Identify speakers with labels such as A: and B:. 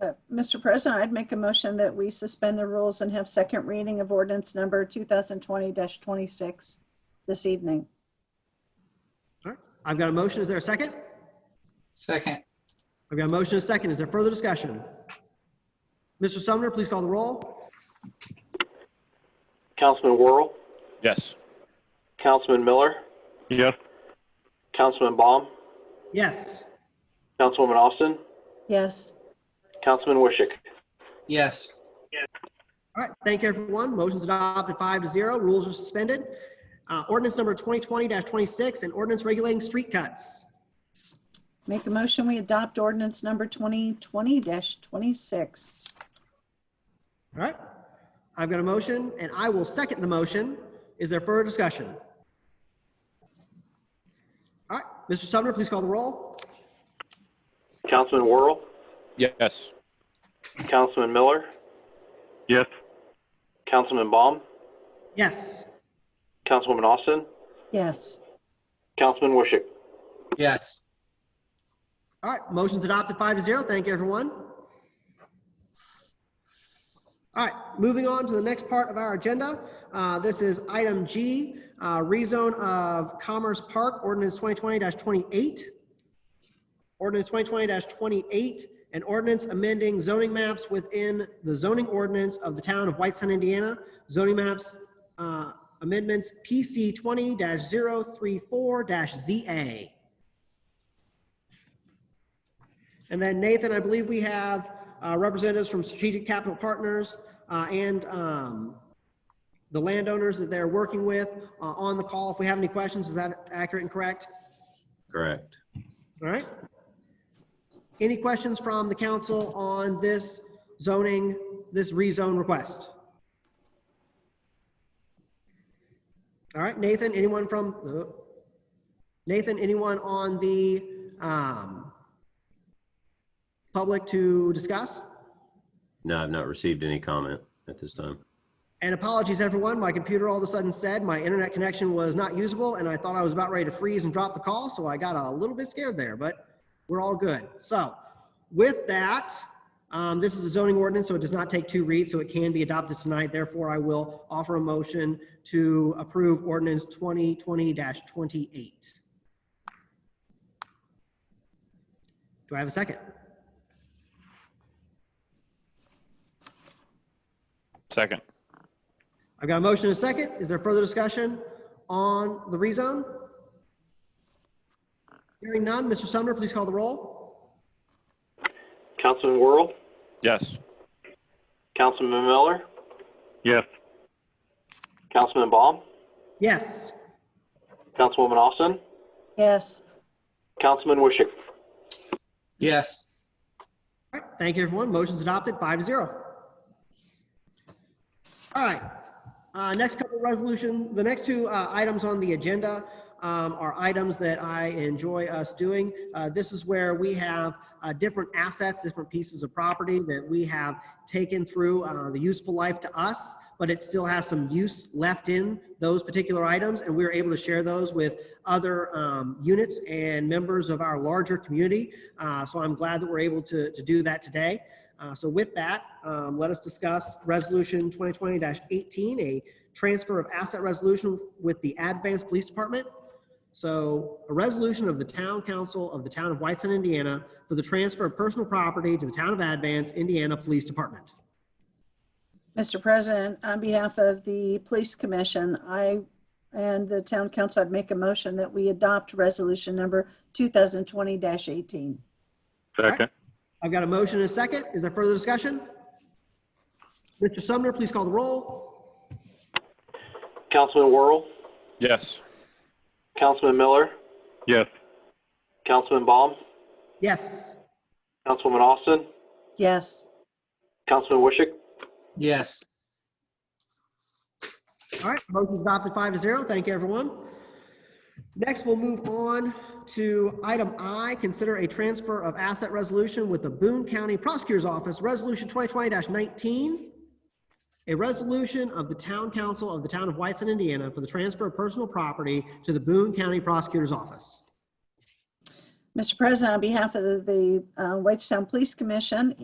A: Uh, Mr. President, I'd make a motion that we suspend the rules and have second reading of ordinance number 2020-26 this evening.
B: All right. I've got a motion. Is there a second?
C: Second,
B: I've got a motion, and a second. Is there further discussion? Mr. Sumner, please call the roll.
D: Councilman Worrell,
E: Yes.
D: Councilman Miller,
E: Yes.
D: Councilman Baum,
B: Yes.
D: Councilwoman Austin,
A: Yes,
D: Councilman Wishick.
C: yes,
B: All right, thank you, everyone. Motion's adopted five to zero. Rules are suspended. Uh, Ordinance number 2020-26, an ordinance regulating street cuts.
A: make a motion, we adopt ordinance number 2020-26.
B: All right. I've got a motion, and I will second the motion. Is there further discussion? All right, Mr. Sumner, please call the roll.
D: Councilman Worrell,
E: Yes.
D: Councilman Miller,
E: Yes.
D: Councilman Baum,
B: Yes.
D: Councilwoman Austin,
A: Yes,
D: Councilman Wishick.
C: yes,
B: All right, motion's adopted five to zero. Thank you, everyone. All right, moving on to the next part of our agenda. Uh, This is item G, uh, rezone of Commerce Park, ordinance 2020-28. Ordinance 2020-28, an ordinance amending zoning maps within the zoning ordinance of the town of Whitestown, Indiana. Zoning maps uh, amendments PC 20-034-ZA. And then Nathan, I believe we have uh, representatives from Strategic Capital Partners uh, and um, the landowners that they're working with uh, on the call. If we have any questions, is that accurate and correct?
F: Correct.
B: All right. Any questions from the council on this zoning, this rezone request? All right, Nathan, anyone from, oh. Nathan, anyone on the um, public to discuss?
F: No, I've not received any comment at this time.
B: And apologies, everyone. My computer all of a sudden said my internet connection was not usable, and I thought I was about ready to freeze and drop the call, so I got a little bit scared there, but we're all good. So, with that, um, this is a zoning ordinance, so it does not take two reads, so it can be adopted tonight. Therefore, I will offer a motion to approve ordinance 2020-28. Do I have a second?
E: Second.
B: I've got a motion and a second. Is there further discussion on the rezone? Hearing none. Mr. Sumner, please call the roll.
D: Councilman Worrell,
E: Yes.
D: Councilman Miller,
E: Yes.
D: Councilman Baum,
B: Yes.
D: Councilwoman Austin,
A: yes,
D: Councilman Wishick.
C: yes,
B: All right. Thank you, everyone. Motion's adopted, five to zero. All right. Uh, next couple resolution, the next two uh, items on the agenda um, are items that I enjoy us doing. Uh, this is where we have uh, different assets, different pieces of property that we have taken through uh, the useful life to us, but it still has some use left in those particular items, and we're able to share those with other um, units and members of our larger community. Uh, so I'm glad that we're able to, to do that today. Uh, So with that, um, let us discuss Resolution 2020-18, a transfer of asset resolution with the Advance Police Department. So a resolution of the Town Council of the Town of Whiteson, Indiana, for the transfer of personal property to the Town of Advance, Indiana Police Department.
A: Mr. President, on behalf of the Police Commission, I and the Town Council, I'd make a motion that we adopt resolution number 2020-18.
B: Second. I've got a motion and a second. Is there further discussion? Mr. Sumner, please call the roll.
D: Councilman Worrell,
E: Yes.
D: Councilman Miller,
E: Yes.
D: Councilman Baum,
B: Yes.
D: Councilwoman Austin,
A: Yes,
D: Councilman Wishick.
C: yes,
B: All right, motion's adopted five to zero. Thank you, everyone. Next, we'll move on to item I, consider a transfer of asset resolution with the Boone County Prosecutor's Office, Resolution 2020-19. A resolution of the Town Council of the Town of Whiteson, Indiana for the transfer of personal property to the Boone County Prosecutor's Office.
A: Mr. President, on behalf of the uh, Whitestown Police Commission